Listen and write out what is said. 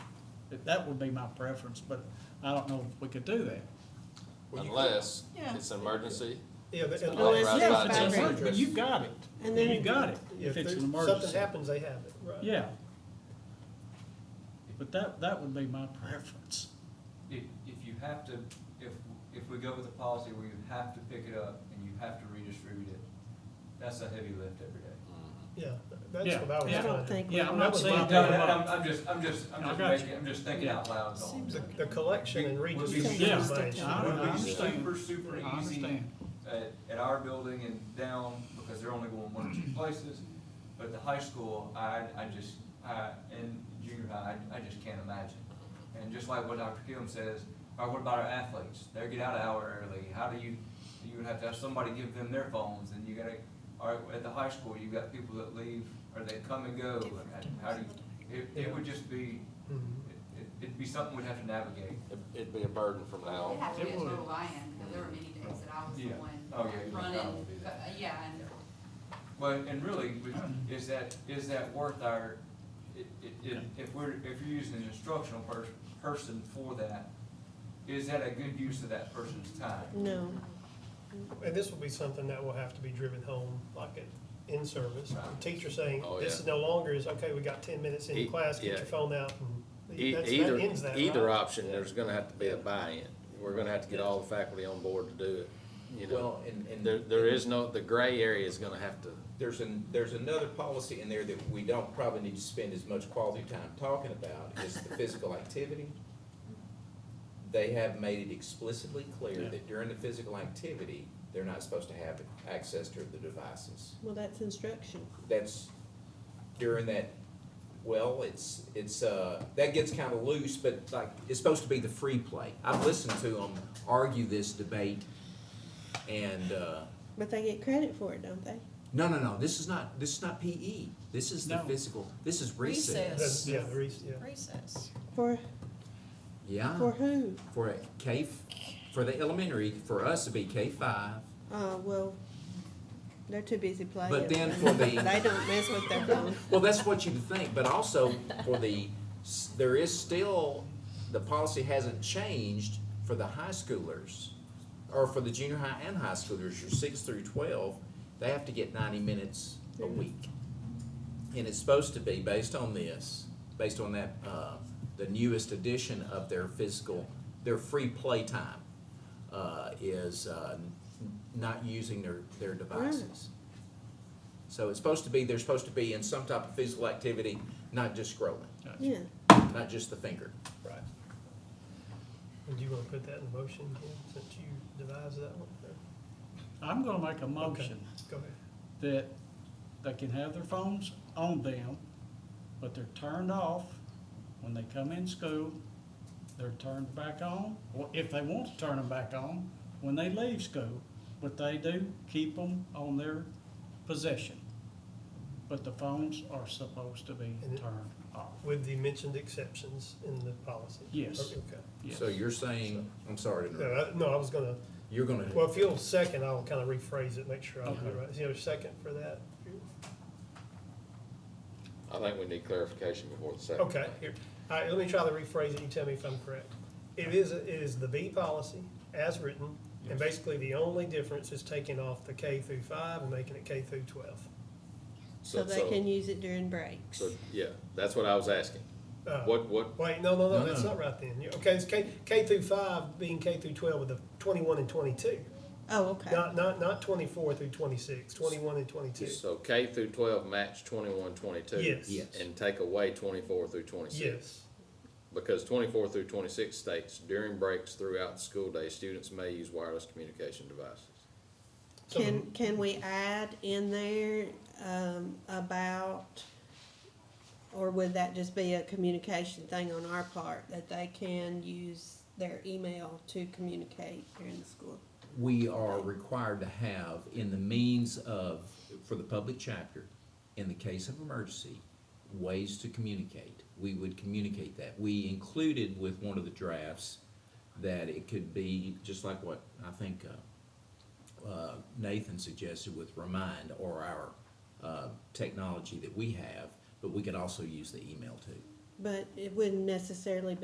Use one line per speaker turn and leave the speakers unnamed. That- That would be my preference, but I don't know if we could do that.
Well, you could-
Unless
Yeah.
it's an emergency.
Yeah, but.
Unless- Authorized
Yeah,
by
if it's
the
emergency, But you got it.
And then-
You got it, if
If
it's
there-
an
something
emergency.
happens, they have it, right?
Yeah. But that, that would be my preference.
If, if you have to, if, if we go with a policy where you have to pick it up and you have to redistribute it, that's a heavy lift every day.
Yeah, that's
Yeah,
what I was.
yeah.
I
trying
don't
to-
think we
Yeah, I'm
that
not
was
saying.
my-
don't
No, no,
allow it.
I'm, I'm just, I'm just, I'm
I
just
got
making,
you.
I'm just thinking
Yeah.
out loud, is all I'm
The,
saying.
the collection and
Would be-
redistribution.
Yeah,
is-
I
Would be
understand.
super, super
I
easy
understand.
at, at our building and down, because they're only going one or two places. But at the high school, I, I just, I, and junior high, I, I just can't imagine. And just like what Dr. Kim says, all right, what about our athletes? They get out an hour early, how do you, you would have to have somebody give them their phones, and you gotta, all right, at the high school, you've got people that leave, or they come and go, and how do you, it, it would just be,
Mhm.
it- it'd be something we'd have to navigate.
It- It'd be a burden from now
It
on.
had to be a
It would.
total buy-in, because there were many days that I was the
Yeah. Oh, yeah, you
one
probably
running,
do that.
uh, yeah, and
Well, and really, we- is that, is that worth our, i- i- i- if we're, if you're using an instructional per- person for that, is that a good use of that person's time?
No,
And this will be something that will have to be driven home, like in- in service.
Right.
Teacher saying,
Oh,
this
yeah.
is no longer is, okay, we got ten minutes in
E-
class, get
yeah.
your phone out. and
E-
that's- that
Either,
ends that,
either
right?
option, there's gonna have to be a buy-in. We're gonna have to get all the faculty on board to do it, you know.
Well, and, and
There, there is no, the gray area is gonna have to,
there's an, there's another policy in there that we don't probably need to spend as much quality time talking about, is the physical activity. They have made it explicitly clear
Yeah.
that during the physical activity, they're not supposed to have access to the devices.
well, that's instruction.
That's during that, well, it's, it's, uh, that gets kind of loose, but like, it's supposed to be the free play. I've listened to them argue this debate, and, uh,
But they get credit for it, don't they?
No, no, no, this is not, this is not PE. This is the
No.
physical, this is recess.
That's- Yeah, the reason, yeah.
Recess.
For,
Yeah,
for who?
for a K, f- for the elementary, for us to be K five.
Uh, well, they're too busy playing.
But then for the-
They don't mess with their phone.
Well, that's what you would think, but also for the, s- there is still, the policy hasn't changed for the high schoolers. Or for the junior high and high schoolers, your six through twelve, they have to get ninety minutes a
Mm-hmm.
week. And it's supposed to be based on this, based on that, uh, the newest edition of their physical, their free play time, uh, is, uh, n- not using their, their devices. So it's supposed to be, they're supposed to be in some type of physical activity, not just scrolling,
Yeah,
not just the finger.
Right. Would you want to put that in motion, Ken, since you devised that one? Or-
I'm gonna make a motion
Go ahead.
that they can have their phones on them, but they're turned off when they come in school. They're turned back on, or if they want to turn them back on, when they leave school, but they do keep them on their possession. But the phones are supposed to be
And it-
turned off,
With the mentioned exceptions in the policy?
Yes.
Okay.
yes.
So you're saying, I'm sorry to
No,
interrupt,
I- No, I was gonna,
you're gonna,
well, if you'll second, I'll kind of rephrase it, make sure I do
Okay.
it right. Is there a second for that?
I think we need clarification before the second.
Okay, here, all right, let me try to rephrase it, you tell me if I'm correct. It is, it is the B policy as written, and basically the only difference is taking off the K through five and making it K through twelve.
so they can use it during breaks.
So, yeah, that's what I was asking.
Uh,
What, what,
Wait, no, no, no,
No,
that's
no.
not right then. You- Okay, it's K, K through five being K through twelve with the twenty-one and twenty-two.
Oh, okay.
Not, not, not twenty-four through twenty-six, twenty-one and twenty-two.
so K through twelve match twenty-one, twenty-two?
Yes.
Yes.
And take away twenty-four through twenty-six?
Yes,
Because twenty-four through twenty-six states, during breaks throughout the school day, students may use wireless communication devices.
So-
Can, can we add in there, um, about, or would that just be a communication thing on our part, that they can use their email to communicate during the school?
we are required to have in the means of, for the public chapter, in the case of emergency, ways to communicate. We would communicate that. We included with one of the drafts that it could be, just like what I think, uh, uh, Nathan suggested with Remind or our uh, technology that we have, but we could also use the email too.
But it wouldn't necessarily be